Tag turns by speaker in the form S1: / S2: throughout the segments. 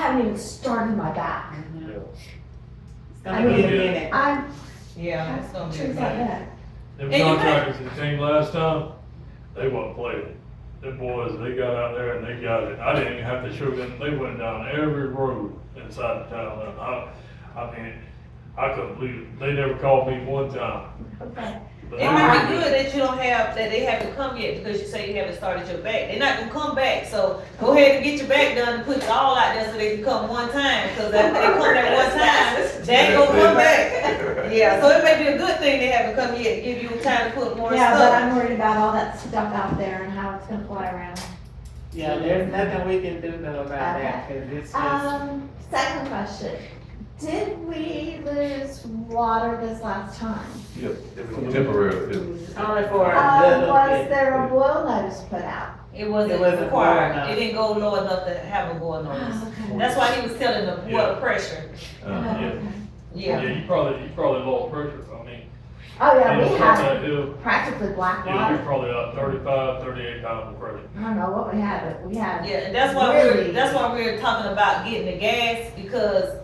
S1: haven't even started my back.
S2: It's
S1: I
S2: gonna
S1: mean-
S2: be a minute.
S1: I'm,
S2: Yeah, it's gonna be a
S1: things like
S2: minute.
S1: that.
S3: Them
S2: And you might-
S3: contractors that came last time, they wasn't playing. Them boys, they got out there and they got it. I didn't even have to show them, they went down every road inside the town. And I, I mean, I couldn't believe it. They never called me one time.
S1: Okay.
S3: But
S2: It
S3: they
S2: might be
S3: were-
S2: good that you don't have, that they haven't come yet because you say you haven't started your back. They're not gonna come back, so go ahead and get your back done and put it all out there so they can come one time. Cause after they come that one time, they ain't gonna come back. Yeah, so it may be a good thing they haven't come yet, to give you time to put more
S1: Yeah, but
S2: stuff.
S1: I'm worried about all that stuff out there and how it's gonna fly around.
S4: Yeah, there's nothing we can do though about that, cause it's just,
S1: Um, second question, did we lose water this last time?
S5: Temporary, too.
S4: only for a
S1: Uh,
S4: little
S1: was
S4: bit.
S1: there a boil notice put out?
S2: It wasn't
S4: It wasn't low
S2: required,
S4: enough.
S2: it didn't go low enough to have a going on.
S1: Okay.
S2: That's why he was telling the
S3: Yeah.
S2: water pressure,
S1: Oh,
S5: Uh,
S3: yeah.
S2: yeah.
S3: Yeah, you probably, you probably low pressure. I mean,
S1: Oh,
S3: you
S1: yeah,
S3: know,
S1: we
S3: from
S1: had
S3: that hill,
S1: practically black
S3: yeah, you're
S1: water.
S3: probably out thirty-five, thirty-eight pounds of pressure.
S1: I don't know what we had, but we had.
S2: Yeah, and that's why we're,
S1: Really?
S2: that's why we're talking about getting the gas, because,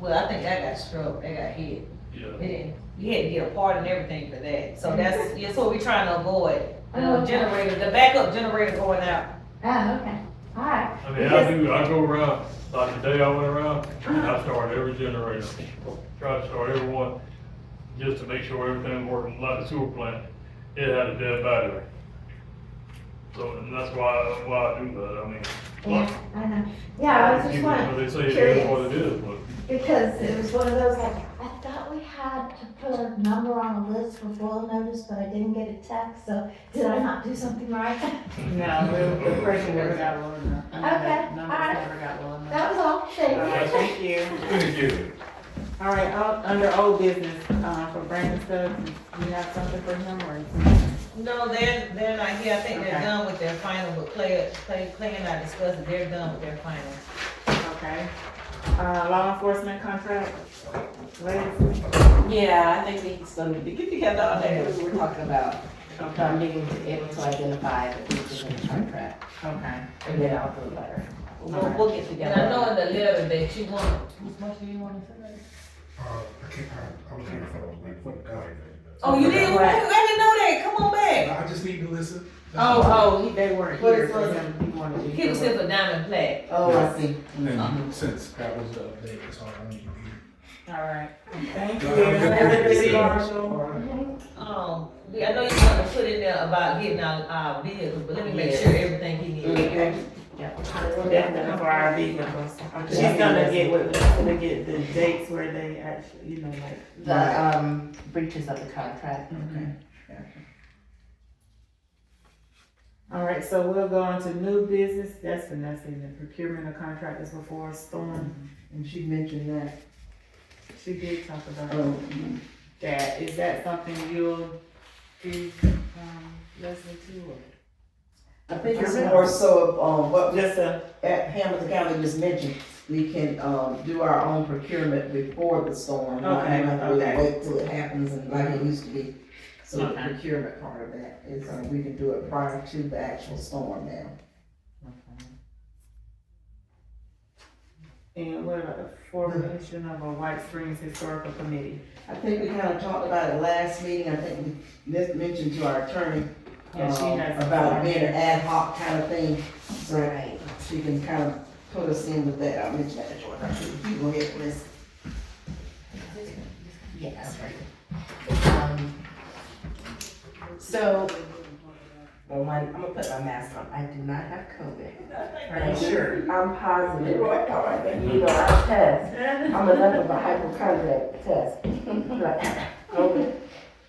S2: well, I think that got struck, that got hit.
S3: Yeah.
S2: It didn't, you had to get a part and everything for that, so that's, that's what we're trying to avoid. The
S1: Okay.
S2: generator, the backup generator going out.
S1: Oh, okay, all right.
S3: I mean, I do, I go around, like today I went around, and I started every generator, tried to start every one, just to make sure everything worked, like the sewer plant, it had a dead battery. So, and that's why, why I do that, I mean.
S1: Yeah, I know. Yeah, I was just
S3: you-
S1: wondering,
S3: They say it is what it is, but,
S1: because it was one of those, like, I thought we had to put a number on a list for boil notice, but I didn't get a text, so did I not do something right?
S4: No, the, the pressure never got low enough. Okay,
S1: Okay, alright.
S4: Numbers never got low enough.
S1: That was all,
S4: Alright,
S1: thank you.
S4: thank you.
S5: Thank you.
S4: All right, out, under old business, uh, for Brandon Stubbs, you have something for him or?
S2: No, they're, they're not here, I think they're
S4: Okay.
S2: done with their final, but Clay, Clay, Clay and I discussed it, they're done with their final.
S4: Okay. Uh, law enforcement contract, Liz?
S6: Yeah, I think we still need to get together on that, what we we're talking about, about
S4: Okay,
S6: being able to identify the people in the contract,
S4: okay.
S6: and then I'll do a letter. We'll,
S4: Alright.
S6: we'll get
S2: And
S6: together.
S2: I know in the letter that you want, how much do you wanna say?
S7: Uh, I can't, I, I was trying to find my name for the guy.
S2: Oh, you did,
S6: did?
S2: not
S6: What?
S2: I didn't know that, come on back.
S7: I just need to listen.
S4: Oh, oh, he, they weren't
S6: What
S4: here,
S6: is
S4: so
S6: it?
S4: him, he wanted you to.
S2: He was here for diamond plat.
S6: Oh, I see.
S7: And since that was the update, that's all I need to
S4: Alright, thank you.
S7: Y'all have a good
S4: Everybody,
S7: day.
S4: Marshall.
S2: Um, we- I know you wanted to put in there about getting our, our vehicles, but let me make sure everything he needs.
S4: Okay. Definitely for our vehicles. She's gonna get, with- she's gonna get the dates where they actually, you know, like.
S6: The, um, breaches of the contract.
S4: Okay. All right, so we'll go on to new business, that's Vanessa, and the procurement of contractors before storm,
S8: And she mentioned that,
S4: she did talk about
S8: um,
S4: that, is that something you'll do, um, Leslie too?
S8: I think it's more so, of, um,
S4: or-
S8: what
S4: Just a,
S8: at Hamilton County just mentioned, we can, um, do our own procurement before the storm. not
S4: Okay,
S8: have to really
S4: okay.
S8: Wait till it happens and like it used to be. So the
S4: Okay.
S8: procurement part of that is, uh, we can do it prior to the actual storm now.
S4: and what about the formation of a White Springs Historical Committee?
S8: I think we kind of talked about it last meeting, I think we mis- mentioned to our attorney,
S4: Yeah, she
S8: um,
S4: has-
S8: about it being an ad hoc kind of thing, so
S6: Right.
S8: she can kind of put us in with that, I'll mention that to her. You go ahead, Liz.
S6: Yeah, that's right. Um, So, well, my, I'm gonna put my mask on, I do not have COVID. I'm sure, I'm positive. You know, I test, I'm enough of a hypochondriac test. But- okay.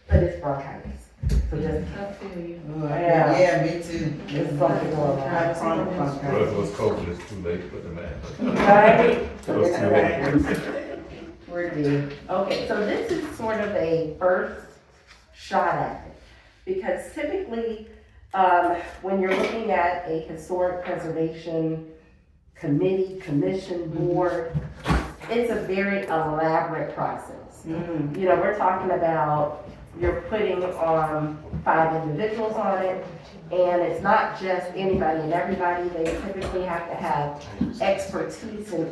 S6: But it's bronchitis, so just,
S8: Oh, I-
S6: Yeah.
S8: Yeah, me too.
S6: It's fucking going on.
S8: I promise my God.
S5: Well, if it was COVID, it's too late for the man.
S6: right?
S5: It was too late.
S6: We're good. Okay, so this is sort of a first shot at it. Because typically, um, when you're looking at a historic preservation committee, commission, board, it's a very elaborate process.
S8: Mhm.
S6: You know, we're talking about, you're putting on five individuals on it, and it's not just anybody and everybody. They typically have to have expertise in